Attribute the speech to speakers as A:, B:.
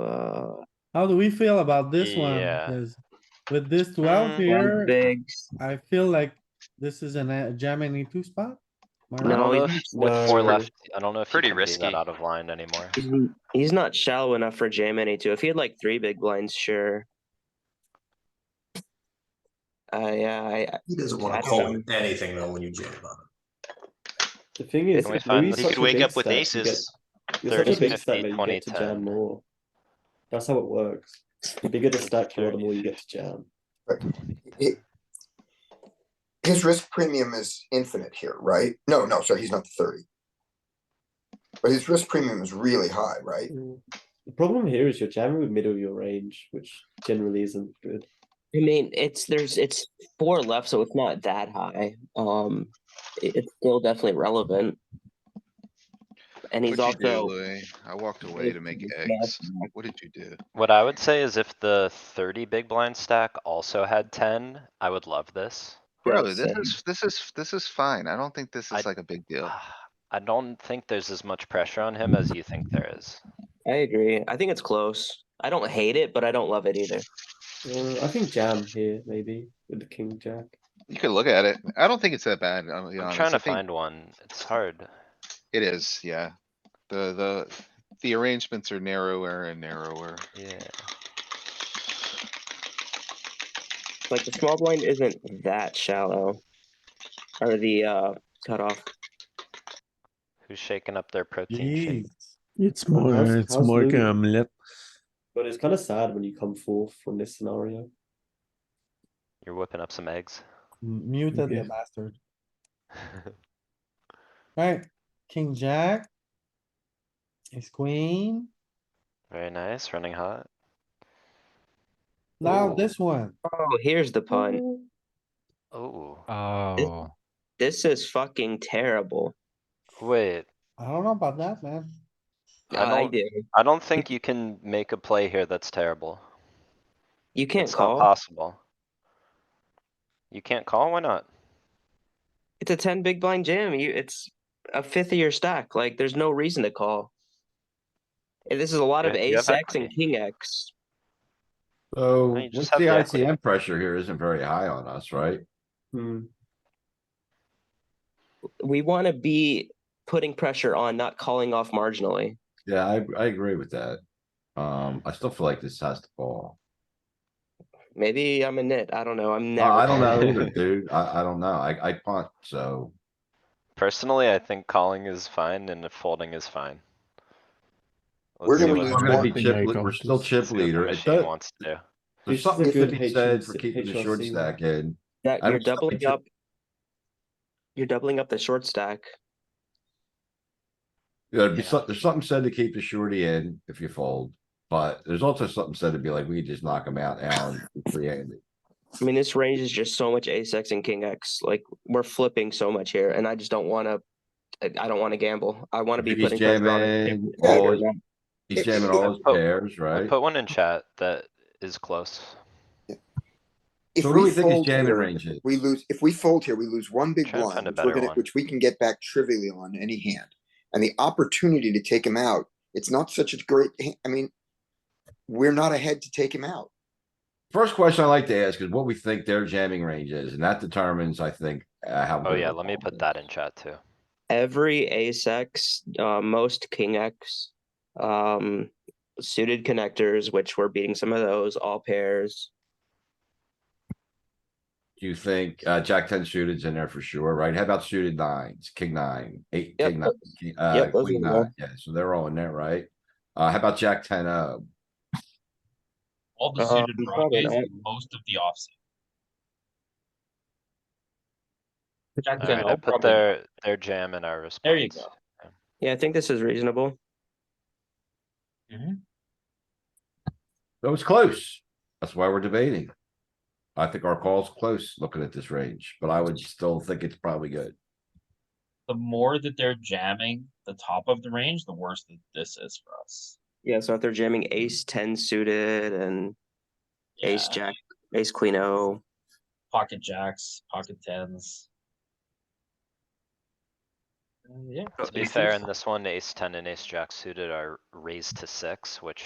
A: Uh,
B: How do we feel about this one?
C: Yeah.
B: 'Cause With this twelve
C: Mm.
A: One
B: here,
A: big.
B: I feel like this is an, a jam any two spot. Am I
C: I
B: right?
C: don't
A: No,
C: know
A: he's
C: if, with four
A: slow.
C: left, I don't know if you
D: Pretty
C: can do that
D: risky.
C: out of line anymore.
A: He's, n- he's not shallow enough for jam any two. If he had like three big blinds, sure. Uh, yeah, I,
E: He doesn't wanna
A: That's
E: call
A: dumb.
E: with anything though when you jam on him.
F: The thing is,
C: Can we
F: if
C: find
F: Louis
C: this?
F: is
D: He
C: You
F: such
D: could
F: a
D: wake
F: big
D: up with
F: stack, you
D: aces.
F: get- You're such a
C: 30,
F: big stack
C: 50,
F: that you
C: 20,
F: get to jam
C: 10.
F: more. That's how it works. The bigger the stack you are, the more you get to jam.
G: it, his risk premium is infinite here, right? No, no, sorry, he's not the thirty. But his risk premium is really high, right?
F: The problem here is you're jamming with middle of your range, which generally isn't good.
A: I mean, it's there's it's four left, so it's not that high. Um, it- it's still definitely relevant. And he's
H: What'd you do,
A: also
H: Louis? I walked away to make eggs. What did you do?
C: What I would say is if the thirty big blind stack also had ten, I would love this.
H: Bro,
A: Yes,
H: this
A: and-
H: is, this is, this is fine. I don't think this
C: I- Ah.
H: is like a big deal.
C: I don't think there's as much pressure on him as you think there is.
A: I agree. I think it's close. I don't hate it, but I don't love it either.
F: Uh, I think jam here maybe with the king jack.
H: You could look at it. I don't think it's that bad, I'm be
C: I'm
H: honest.
C: trying to
H: I think
C: find one. It's hard.
H: It is, yeah. The, the, the arrangements are narrower and narrower.
C: Yeah.
A: Like the small blind isn't that shallow, or the uh cutoff.
C: Who's shaking up their protein shake?
B: Jeez.
I: It's
F: Well,
I: more,
F: how's-
I: it's
F: how's
I: more
F: Louis?
I: omelette.
F: But it's kind of sad when you come forth from this scenario.
C: You're whipping up some eggs.
B: Muted the
I: Yeah.
B: bastard. Alright, king, jack. Ace queen.
C: Very nice, running hot.
B: Now
F: Ooh.
B: this one.
A: Oh, here's the pun.
C: Oh,
A: Uh,
J: Oh,
A: This is fucking terrible.
C: wait,
B: I don't know about that, man.
C: I
A: I,
C: don't-
A: do.
C: I don't think you can make a play here that's terrible.
A: You can't
C: It's not
A: call.
C: possible. You can't call? Why not?
A: it's a 10 big blind jam. You it's a fifth of your stack. Like there's no reason to call. And this is a lot of
C: Yeah, you have
A: ace X and
C: equity.
A: king X.
K: So
C: No, you just
K: what's
C: have
K: the
C: the equity.
K: ICM pressure here isn't very high on us, right?
F: Hmm.
A: We want to be putting pressure on not calling off marginally.
K: Yeah, I, I agree with that. Um, I still feel like this has to fall.
A: Maybe I'm a nit. I don't know. I'm
K: Uh,
A: never
K: I don't know
A: calling.
K: either, dude. I, I don't know. I, I punt, so.
C: Personally, I think calling is fine and folding is fine. Let's
G: We're
C: see
G: gonna
C: what
G: be-
K: We're gonna be
I: Swapping
K: chip,
I: there,
K: lead- we're
I: Gompers.
K: still
C: let's
K: chip
C: see what the
K: leader. It
C: Machine
K: does,
C: wants to do.
K: there's
F: This is a
K: something to
F: good
K: be said for
F: HRC
K: keeping the short
F: one.
K: stack in.
A: That
K: I
A: you're
K: don't
A: doubling
K: think it-
A: up. You're doubling up the short stack.
K: There'd be
C: Yeah.
K: some- there's something said to keep the shorty in if you fold, but there's also something said to be like, we just knock him out now and free handed.
A: I mean, this range is just so much ace X and king X. Like we're flipping so much here, and I just don't want to. I don't want to gamble. I want to be
K: He's
A: putting pressure on.
K: jamming,
A: Yeah,
K: all his, he's
G: It's-
K: jamming
C: I
K: all his
C: put-
K: pairs,
C: I
K: right?
C: put one in chat that is close.
G: If
K: So what do we think his
G: fold
K: jamming
G: here,
K: range is?
G: We lose, if we fold here, we lose one big
C: Try to find
G: blind,
C: a
G: which we're
C: better
G: gonna,
C: one.
G: which we can get back trivially on any hand. And the opportunity to take him out, it's not such a great, ha- I mean, we're not ahead to take him out.
K: First question I like to ask is what we think their jamming range is, and that determines, I think, uh, how.
C: Oh
K: good
C: yeah,
K: of a
C: let me
K: call it
C: put
K: is.
C: that in chat too.
A: every ace x uh, most king x um suited connectors which we're beating some of those all pairs
K: Do you think, uh, Jack ten suited's in there for sure, right? How about suited nines, king nine, eight,
A: Yep,
K: king nine, king- uh,
A: yep, those
K: queen
A: are there.
K: nine? Yeah, so they're all in there, right? Uh, how about Jack ten uh, O?
L: All the
A: Uh,
L: suited
A: probably
L: broadways
A: not.
L: and most of the offsuit. Jack ten,
C: Alright,
L: all
C: I put
L: probably-
C: their, their jam in our response.
L: There you go.
A: yeah i think this is reasonable
L: Mhm.
K: That was close. That's why we're debating. I think our call's close, looking at this range, but I would still think it's probably good.
L: The more that they're jamming the top of the range, the worse that this is for us.
A: yeah so if they're jamming ace 10 suited and ace
L: Yeah,
A: jack ace queen o
L: Pocket jacks, pocket tens. Uh, Yeah.
C: To be
L: aces.
C: fair, in this one, ace ten and ace jack suited are raised to six, which